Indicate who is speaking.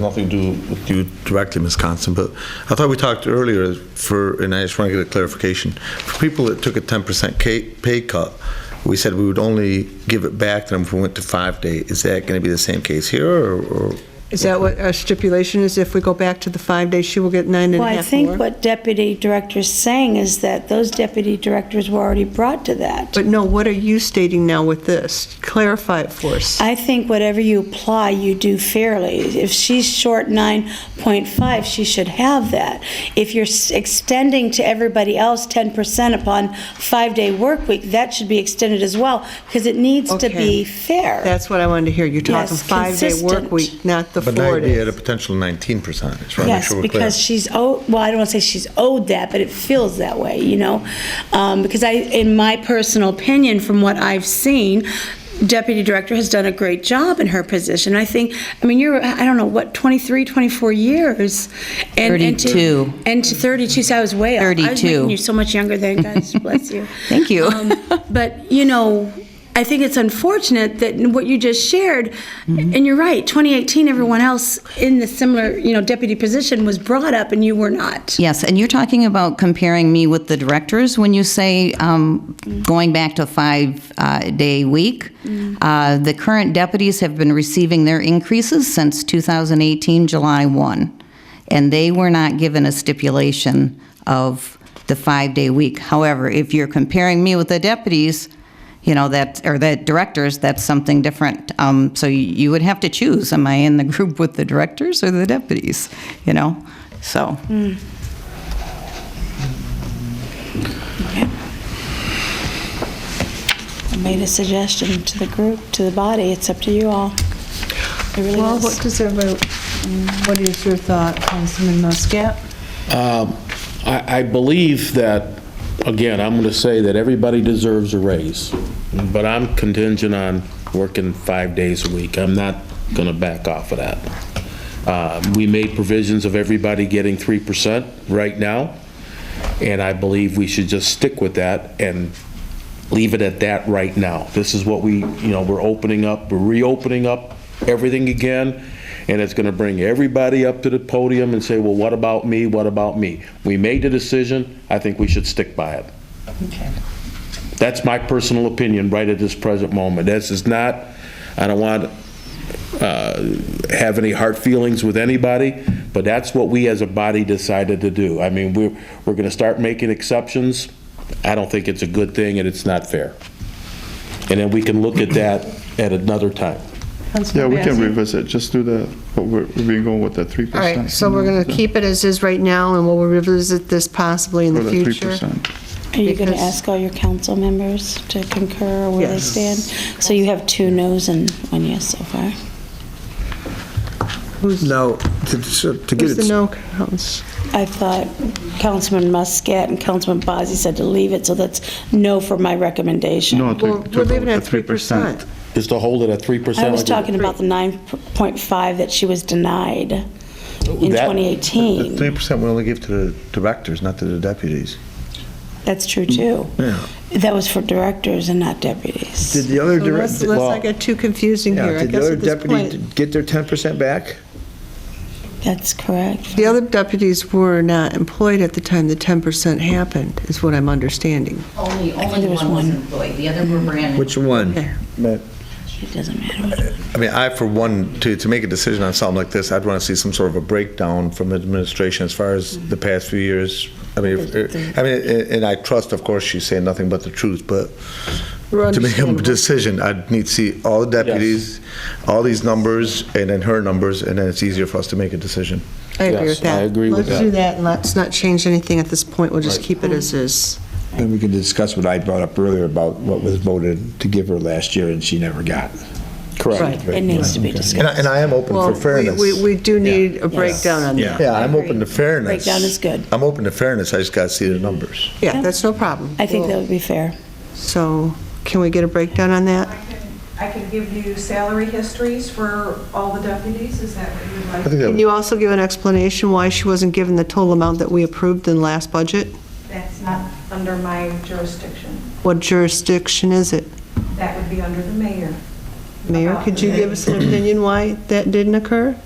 Speaker 1: Nothing to do with you directly, Ms. Constant, but I thought we talked earlier for, and I just want to get a clarification. For people that took a 10% ca- pay cut, we said we would only give it back to them if we went to five day. Is that going to be the same case here, or- or?
Speaker 2: Is that what our stipulation is? If we go back to the five days, she will get nine and
Speaker 3: Well,
Speaker 2: a
Speaker 3: I
Speaker 2: half more?
Speaker 3: think what deputy director's saying is that those deputy directors were already brought to that.
Speaker 2: But no, what are you stating now with this? Clarify it for us.
Speaker 3: I think whatever you apply, you do fairly. If she's short 9.5, she should have that. If you're s- extending to everybody else 10% upon five-day work week, that should be extended as well, because it needs to
Speaker 2: Okay.
Speaker 3: be fair.
Speaker 2: That's what I wanted to hear. You're talking
Speaker 3: Yes,
Speaker 2: five-day work
Speaker 3: consistent.
Speaker 2: week, not the
Speaker 1: But now
Speaker 2: four
Speaker 1: you'd be at a
Speaker 2: days.
Speaker 1: potential 19%. I just want to make
Speaker 3: Yes,
Speaker 1: sure we're clear.
Speaker 3: because she's owed, well, I don't want to say she's owed that, but it feels that way, you know? Um, Because I, in my personal opinion, from what I've seen, Deputy Director has done a great job in her position. I think, I mean, you're, I don't know, what, 23, 24 years? And- and to-
Speaker 4: 32.
Speaker 3: And to 32, so I was way off. I was
Speaker 4: 32.
Speaker 3: making you so much younger than, God bless you.
Speaker 4: Thank you.
Speaker 3: Um, But, you know, I think it's unfortunate that what you just shared,
Speaker 4: Mm-hmm.
Speaker 3: and you're right, 2018, everyone else in the similar, you know, deputy position was brought up and you were not.
Speaker 4: Yes, and you're talking about comparing me with the directors when you say um, going back to five-day week. Uh, The current deputies have been receiving their increases since 2018, July 1, and they were not given a stipulation of the five-day week. However, if you're comparing me with the deputies, you know, that, or the directors, that's something different. Um, So you you would have to choose, am I in the group with the directors or the deputies, you know? So.
Speaker 3: I made a suggestion to the group, to the body, it's up to you all. It really
Speaker 5: Well, what
Speaker 3: is.
Speaker 5: does everybody, what is your thought, Councilman Muscat?
Speaker 6: Um, I I believe that, again, I'm going to say that everybody deserves a raise, but I'm contingent on working five days a week. I'm not going to back off of that. Uh, We made provisions of everybody getting 3% right now, and I believe we should just stick with that and leave it at that right now. This is what we, you know, we're opening up, we're reopening up everything again, and it's gonna bring everybody up to the podium and say, well, what about me, what about me? We made the decision, I think we should stick by it. That's my personal opinion right at this present moment. This is not, I don't want to have any hard feelings with anybody, but that's what we as a body decided to do. I mean, we're, we're going to start making exceptions. I don't think it's a good thing and it's not fair. And then we can look at that at another time.
Speaker 7: Yeah,
Speaker 5: Councilman
Speaker 7: we can
Speaker 5: Bassett?
Speaker 7: revisit, just do the, what we're, we've been going with the 3%.
Speaker 2: All right, so we're going to keep it as is right now, and we'll revisit this possibly in
Speaker 7: For
Speaker 2: the
Speaker 7: the
Speaker 2: future.
Speaker 7: 3%.
Speaker 3: Are you going to
Speaker 2: because-
Speaker 3: ask all your council members to concur or where they
Speaker 2: Yes.
Speaker 3: stand? So you have two noes and one yes so far.
Speaker 1: Now, to to get
Speaker 2: Who's
Speaker 1: it
Speaker 2: the no counts?
Speaker 3: I thought Councilman Muscat and Councilman Bazey said to leave it, so that's no for my recommendation.
Speaker 7: No, to-
Speaker 2: We're
Speaker 7: to
Speaker 2: we're leaving
Speaker 7: the
Speaker 2: it at 3%.
Speaker 6: Is to hold it at 3%.
Speaker 3: I was
Speaker 6: like we-
Speaker 3: talking about the 9.5 that she was denied in
Speaker 6: That-
Speaker 1: The
Speaker 3: 2018.
Speaker 1: 3% we only give to the directors, not to the deputies.
Speaker 3: That's true, too.
Speaker 1: Yeah.
Speaker 3: That was for directors and not
Speaker 8: Did
Speaker 3: deputies.
Speaker 8: the other
Speaker 2: So Let's
Speaker 8: director,
Speaker 2: let's not get too confusing here, I
Speaker 8: did the
Speaker 2: guess
Speaker 8: other
Speaker 2: at this
Speaker 8: deputy
Speaker 2: point.
Speaker 8: get their 10% back?
Speaker 3: That's correct.
Speaker 2: The other deputies were not employed at the time the 10% happened, is what I'm understanding.
Speaker 9: Only,
Speaker 3: there
Speaker 9: only
Speaker 3: was
Speaker 9: one was
Speaker 3: one.
Speaker 9: employed, the other were brand new.
Speaker 8: Which one?
Speaker 3: It doesn't matter.
Speaker 1: I mean, I, for one, to, to make a decision on something like this, I'd want to see some sort of a breakdown from the administration as far as
Speaker 2: Mm-hmm.
Speaker 1: the past few years. I mean, if- I mean, a- and I trust, of course, she's saying nothing but the truth, but
Speaker 2: We're
Speaker 1: to make a
Speaker 2: understandable.
Speaker 1: decision, I'd need to see all the deputies, all these numbers, and then her numbers, and then it's easier for us to make a decision.
Speaker 2: I agree
Speaker 6: Yes,
Speaker 2: with that.
Speaker 6: I agree with
Speaker 2: Let's
Speaker 6: that.
Speaker 2: do that, and let's not change anything at this point, we'll just keep it as is.
Speaker 8: Then we can discuss what I brought up earlier about what was voted to give her last year and she never got.
Speaker 6: Correct.
Speaker 3: It needs to be
Speaker 1: And I,
Speaker 3: discussed.
Speaker 1: and I am open
Speaker 2: Well,
Speaker 1: for
Speaker 2: we-
Speaker 1: fairness.
Speaker 2: we, we do need a breakdown on that.
Speaker 1: Yeah, I'm open to fairness.
Speaker 3: Breakdown is good.
Speaker 1: I'm open to fairness, I just got to see the numbers.
Speaker 2: Yeah, that's no problem.
Speaker 3: I think that would be fair.
Speaker 2: So, can we get a breakdown on that?
Speaker 10: I can- I can give you salary histories for all the deputies, is that what you'd like?
Speaker 1: I think that
Speaker 2: Can you also give an explanation why she wasn't given the total amount that we approved in last budget?
Speaker 10: That's not under my jurisdiction.
Speaker 2: What jurisdiction is it?
Speaker 10: That would be under the mayor.
Speaker 2: Mayor, could you give us an opinion why that didn't occur?